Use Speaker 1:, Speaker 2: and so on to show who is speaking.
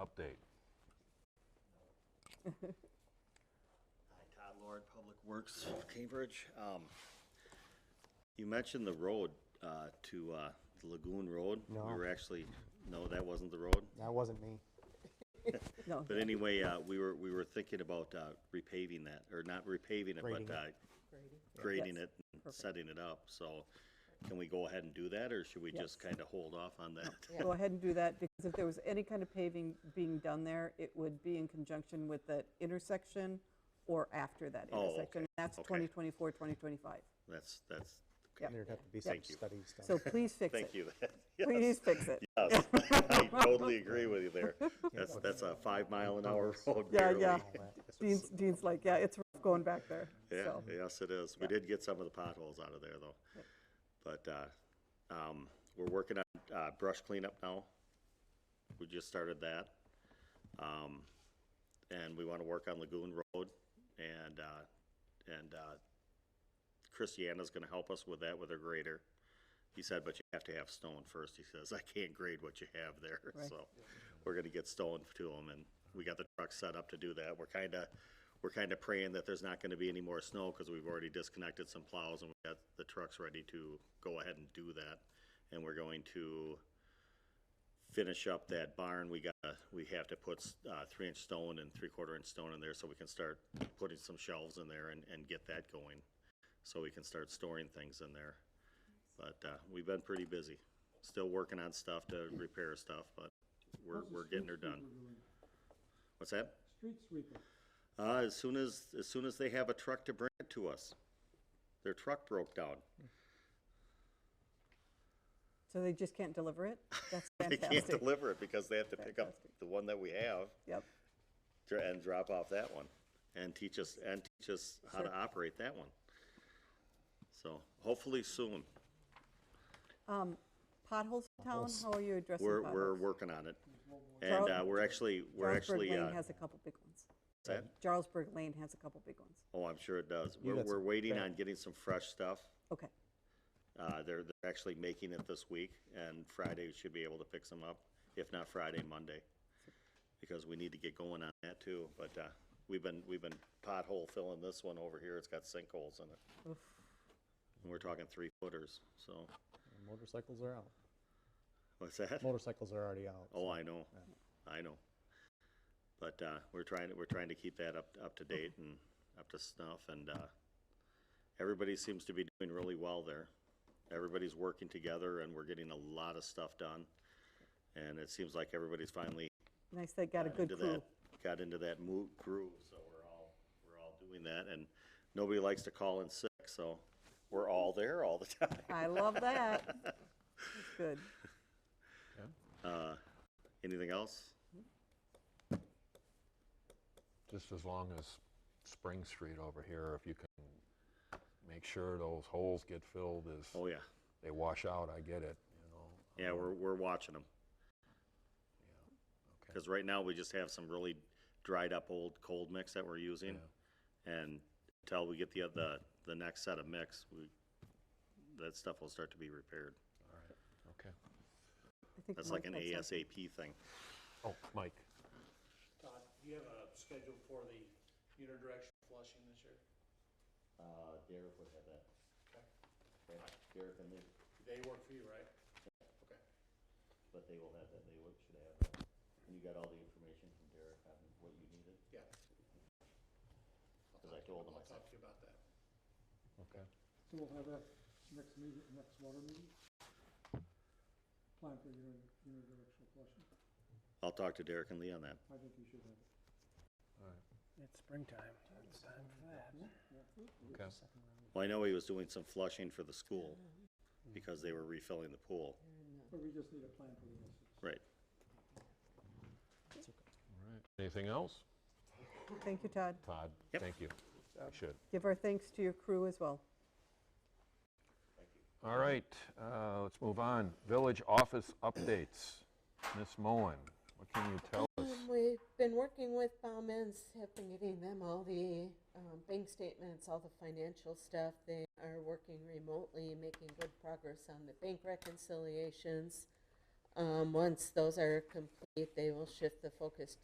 Speaker 1: update.
Speaker 2: Hi, Todd Lord, Public Works, Cambridge. Um, You mentioned the road uh, to uh, the Lagoon Road.
Speaker 3: No.
Speaker 2: We were actually, no, that wasn't the road.
Speaker 3: That wasn't me.
Speaker 4: No,
Speaker 2: But anyway, uh, we were, we were thinking about uh, repaving that, or not repaving it,
Speaker 3: Grading
Speaker 2: but
Speaker 3: it.
Speaker 2: uh, grading
Speaker 4: Yes.
Speaker 2: it and setting it up. So can we go ahead and do that, or should we just
Speaker 4: Yes.
Speaker 2: kind of hold off on that?
Speaker 4: go ahead and do that, because if there was any kind of paving being done there, it would be in conjunction with that intersection or after that
Speaker 2: Oh,
Speaker 4: intersection.
Speaker 2: okay,
Speaker 4: That's
Speaker 2: okay.
Speaker 4: 2024, 2025ed.
Speaker 2: That's, that's,
Speaker 4: Yep.
Speaker 3: There'd have to be some
Speaker 4: Thank
Speaker 2: you.
Speaker 3: studies
Speaker 4: So
Speaker 3: done.
Speaker 4: please fix it.
Speaker 2: thank you.
Speaker 4: Please fix it.
Speaker 2: Yes, I totally agree with you there. That's, that's a five mile an hour road
Speaker 4: Yeah,
Speaker 2: barely.
Speaker 4: yeah. Dean's, Dean's like, yeah, it's rough going back there.
Speaker 2: Yeah,
Speaker 4: So,
Speaker 2: yes, it is. We did get some of the potholes out of there, though. But, uh, um, we're working on, uh, brush cleanup now. We just started that. Um, and we wanna work on Lagoon Road and, uh, and, uh, Christiana's gonna help us with that with her grader. He said, but you have to have stone first. He says, I can't grade what you have there,
Speaker 4: Right.
Speaker 2: so we're gonna get stone to him, and we got the truck set up to do that. We're kinda, we're kinda praying that there's not gonna be any more snow, cause we've already disconnected some plows and we got the trucks ready to go ahead and do that. And we're going to finish up that barn. We got, we have to put, uh, three inch stone and three quarter inch stone in there, so we can start putting some shelves in there and, and get that going. So we can start storing things in there. But, uh, we've been pretty busy. Still working on stuff to repair stuff, but we're, we're getting her done. What's that?
Speaker 5: Street sweeper.
Speaker 2: Uh, as soon as, as soon as they have a truck to bring it to us. Their truck broke down.
Speaker 4: so they just can't deliver it? That's
Speaker 2: They can't
Speaker 4: fantastic.
Speaker 2: deliver it because they have to pick up the one that we have
Speaker 4: Yep,
Speaker 2: dr- and drop off that one. And teach us, and teach us how to operate that one. So hopefully soon.
Speaker 4: potholes in town, how are you addressing
Speaker 2: We're, we're
Speaker 4: potholes?
Speaker 2: working on it. And, uh,
Speaker 4: Charles-
Speaker 2: we're actually, we're actually,
Speaker 4: Jarlsberg Lane
Speaker 2: uh,
Speaker 4: has a couple big ones.
Speaker 2: that-
Speaker 4: Jarlsberg Lane has a couple big ones.
Speaker 2: oh, I'm sure it does. We're,
Speaker 3: got
Speaker 2: we're
Speaker 3: some
Speaker 2: waiting
Speaker 3: bad-
Speaker 2: on getting some fresh stuff.
Speaker 4: Okay,
Speaker 2: Uh, they're, they're actually making it this week, and Friday we should be able to fix them up, if not Friday, Monday. Because we need to get going on that too, but, uh, we've been, we've been pothole filling this one over here, it's got sinkholes in it.
Speaker 4: Oof.
Speaker 2: And we're talking three footers, so,
Speaker 3: Motorcycles are out.
Speaker 2: what's that?
Speaker 3: Motorcycles are already out.
Speaker 2: Oh, I know, I know. But, uh, we're trying, to we're trying to keep that up, up to date and up to snuff, and, uh, everybody seems to be doing really well there. Everybody's working together, and we're getting a lot of stuff done. And it seems like everybody's finally
Speaker 4: nice, they got a good
Speaker 2: into that,
Speaker 4: crew.
Speaker 2: got into that mo- groove, so we're all, we're all doing that, and nobody likes to call in sick, so we're all there all the time.
Speaker 4: I love that. That's good.
Speaker 2: Uh, anything else?
Speaker 1: Just as long as Spring Street over here, if you can make sure those holes get filled as
Speaker 2: Oh, yeah,
Speaker 1: they wash out, I get it, you know.
Speaker 2: yeah, we're, we're watching them. Because right now, we just have some really dried up old cold mix that we're using. And until we get the, oth- the, the next set of mix, we, that stuff will start to be repaired.
Speaker 1: Okay.
Speaker 4: I think
Speaker 2: That's like an
Speaker 4: Mike had something.
Speaker 2: ASAP thing.
Speaker 1: Oh, Mike,
Speaker 6: Todd, do you have a schedule for the unidirectional flushing this year?
Speaker 2: Uh, Derek would have that. Derek and me,
Speaker 6: They work for you, right? Okay.
Speaker 2: but they will have that, they would, should have that. And you got all the information from Derek on what you needed?
Speaker 6: Yeah.
Speaker 2: Because I told them, I
Speaker 6: I'll
Speaker 2: said,
Speaker 6: talk to you about that.
Speaker 1: okay.
Speaker 5: So we'll have that next meeting, next water meeting. Plan for uni- unidirectional flushing.
Speaker 2: I'll talk to Derek and Lee on that.
Speaker 5: I think you should have it.
Speaker 7: It's springtime. It's time for that.
Speaker 1: Okay.
Speaker 2: Well, I know he was doing some flushing for the school because they were refilling the pool.
Speaker 5: But we just need a plan for the rest of it.
Speaker 2: Right.
Speaker 1: All right. Anything else?
Speaker 4: Thank you, Todd.
Speaker 1: Todd,
Speaker 2: Yep.
Speaker 1: thank you. You should.
Speaker 4: Give our thanks to your crew as well.
Speaker 1: All right, uh, let's move on. Village office updates. Ms. Moen, what can you tell us?
Speaker 8: Um, We've been working with Bauman's, have been getting them all the um, bank statements, all the financial stuff. They are working remotely, making good progress on the bank reconciliations. Um, once those are complete, they will shift the focus